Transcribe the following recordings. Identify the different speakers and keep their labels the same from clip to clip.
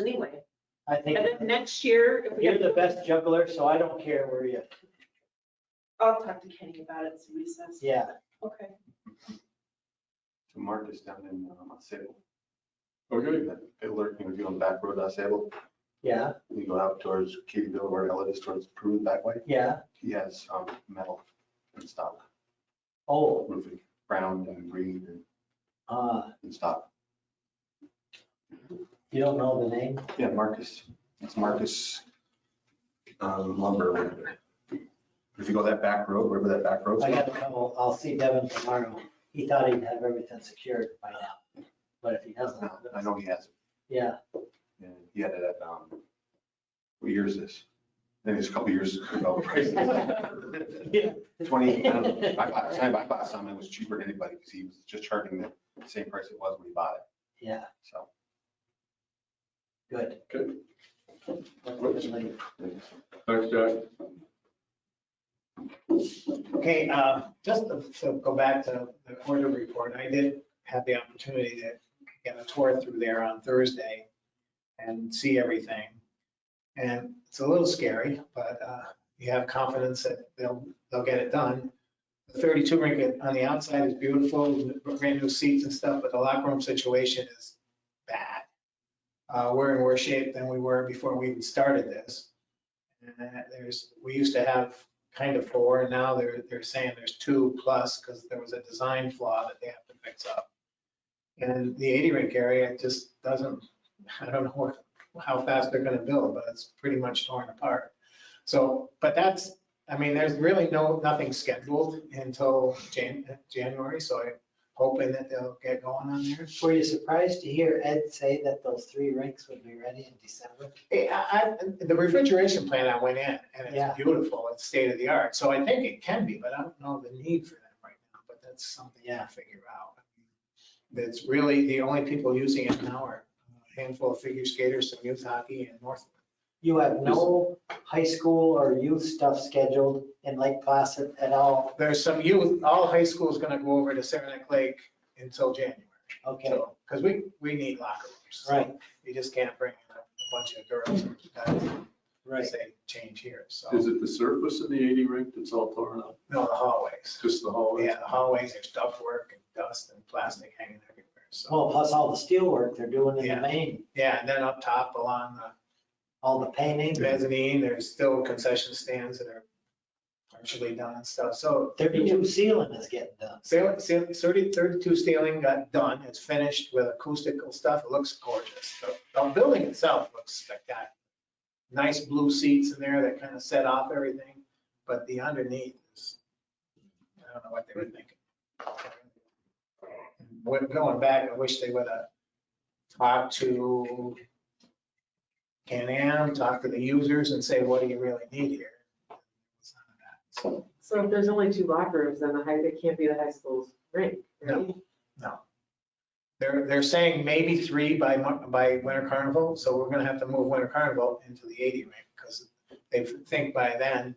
Speaker 1: anyway.
Speaker 2: I think
Speaker 1: And then next year, if we
Speaker 2: you're
Speaker 1: get,
Speaker 2: the best juggler, so I don't care where you,
Speaker 1: I'll talk to Kenny about it, see what he says.
Speaker 2: yeah.
Speaker 1: Okay.
Speaker 3: So Mark is down in um, Sable. We're doing that. They're lurking, we're doing back road on Sable.
Speaker 2: Yeah,
Speaker 3: You go out towards Kittyville, where Elliot is towards Prune that way.
Speaker 2: yeah.
Speaker 3: He has um, metal and stock
Speaker 2: Oh,
Speaker 3: roofing, brown and green and-
Speaker 2: uh,
Speaker 3: and stock.
Speaker 2: you don't know the name?
Speaker 3: Yeah, Marcus, it's Marcus um, lumber. or whatever. If you go that back road, wherever that back road.
Speaker 2: I got a couple, I'll see Devin tomorrow. He thought he'd have everything secured by now, but if he doesn't,
Speaker 3: uh, I know he has, it.
Speaker 2: yeah,
Speaker 3: and he had it at, um, what year is this? Then it's a couple years ago. prices. Twenty, I don't know. I bought, the time I bought some, it was cheaper than anybody, because he was just charging the same price it was when he bought it,
Speaker 2: yeah,
Speaker 3: so.
Speaker 2: good.
Speaker 4: Good.
Speaker 2: Definitely.
Speaker 4: Thanks, Jack.
Speaker 5: Okay, uh, just to- to go back to the quarter report, I did have the opportunity to get a tour through there on Thursday and see everything. And it's a little scary, but uh, you have confidence that they'll, they'll get it done. The 32 rink on the outside is beautiful, brand new seats and stuff, but the locker room situation is bad. Uh, We're in worse shape than we were before we even started this. And there's, we used to have kind of four, and now they're, they're saying there's two plus, because there was a design flaw that they have to fix up. And the 80 rink area just doesn't, I don't know what- how fast they're gonna build, but it's pretty much torn apart. So, but that's, I mean, there's really no, nothing scheduled until Jan, January, so I'm hoping that they'll get going on there.
Speaker 2: Were you surprised to hear Ed say that those three rinks would be ready in December?
Speaker 5: Eh, I, I, the refrigeration plant I went in, and
Speaker 2: Yeah.
Speaker 5: it's beautiful, it's state of the art, so I think it can be, but I don't know the need for that right now, but that's something
Speaker 2: Yeah.
Speaker 5: to figure out. That's really, the only people using it now are a handful of figure skaters, some youth hockey and North.
Speaker 2: You have no high school or youth stuff scheduled in Lake Placid at all?
Speaker 5: There's some youth, all high school is gonna go over to Saranac Lake until January.
Speaker 2: Okay,
Speaker 5: Because we, we need locker rooms. so
Speaker 2: right,
Speaker 5: You just can't bring in a bunch of girls or guys,
Speaker 2: right.
Speaker 5: say, change here, so,
Speaker 4: Is it the surface in the 80 rink that's all torn up?
Speaker 5: no, the hallways.
Speaker 4: It's Just the hallway?
Speaker 5: Yeah, the hallways, there's duct work and dust and plastic hanging everywhere. So,
Speaker 2: Well, plus all the steel work they're doing in the
Speaker 5: Yeah.
Speaker 2: main,
Speaker 5: yeah, and then up top along
Speaker 2: all the painting.
Speaker 5: the mezzanine, there's still concession stands that are partially done and stuff. So
Speaker 2: Thirty-two ceiling is getting done.
Speaker 5: sail- sail- 30 32 ceiling got done. It's finished with acoustical stuff. It looks gorgeous. The- The building itself looks spectacular. Nice blue seats in there that kind of set off everything, but the underneath is, I don't know what they were thinking. When going back, I wish they would have talked to Can-Am, talked to the users and say, what do you really need here? It's none of that. So,
Speaker 6: So if there's only two locker rooms, then the high, it can't be the high school's rink, right?
Speaker 5: They're, they're saying maybe three by, mon- by winter carnival, so we're gonna have to move winter carnival into the 80 rink because they think by then,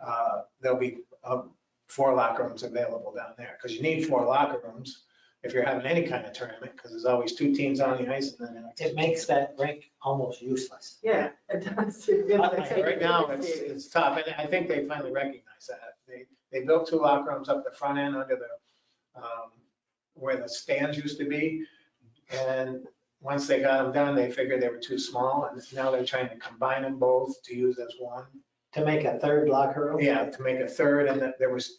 Speaker 5: uh, there'll be uh, four locker rooms available down there, because you need four locker rooms if you're having any kind of tournament, because there's always two teams on the ice and then.
Speaker 2: It makes that rink almost useless.
Speaker 6: Yeah, it does.
Speaker 5: Uh, Right now, it's, it's tough, and I think they finally recognize that. They, they built two locker rooms up the front end under the, um, where the stands used to be. And once they got them done, they figured they were too small, and now they're trying to combine them both to use as one.
Speaker 2: To make a third locker room?
Speaker 5: Yeah, to make a third, and that there was,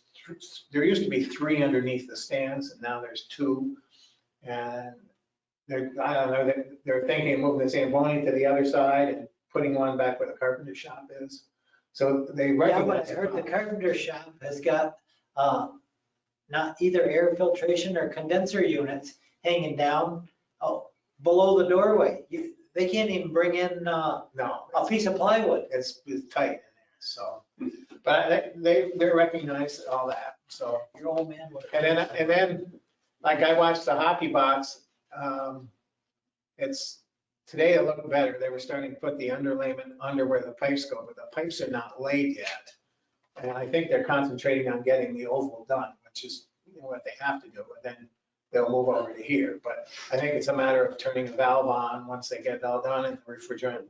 Speaker 5: there used to be three underneath the stands, and now there's two. And they're, I don't know, they're, they're thinking of moving the Zamboni to the other side and putting one back where the carpenter shop is. So they
Speaker 2: Yeah, but
Speaker 5: recognize.
Speaker 2: I
Speaker 5: the
Speaker 2: heard the
Speaker 5: problem.
Speaker 2: carpenter shop has got, uh, not either air filtration or condenser units hanging down, oh, below the doorway. You, they can't even bring in, uh,
Speaker 5: No,
Speaker 2: a piece of plywood.
Speaker 5: it's, it's tight in there, so. But they- they, they recognize all that, so.
Speaker 2: Your old man would.
Speaker 5: And then, and then, like I watched the hockey box, um, it's, today it looked better. They were starting to put the underlayment under where the pipes go, but the pipes are not laid yet. And I think they're concentrating on getting the oval done, which is what they have to do. And then they'll move over to here. But I think it's a matter of turning the valve on once they get it all done and the refrigerant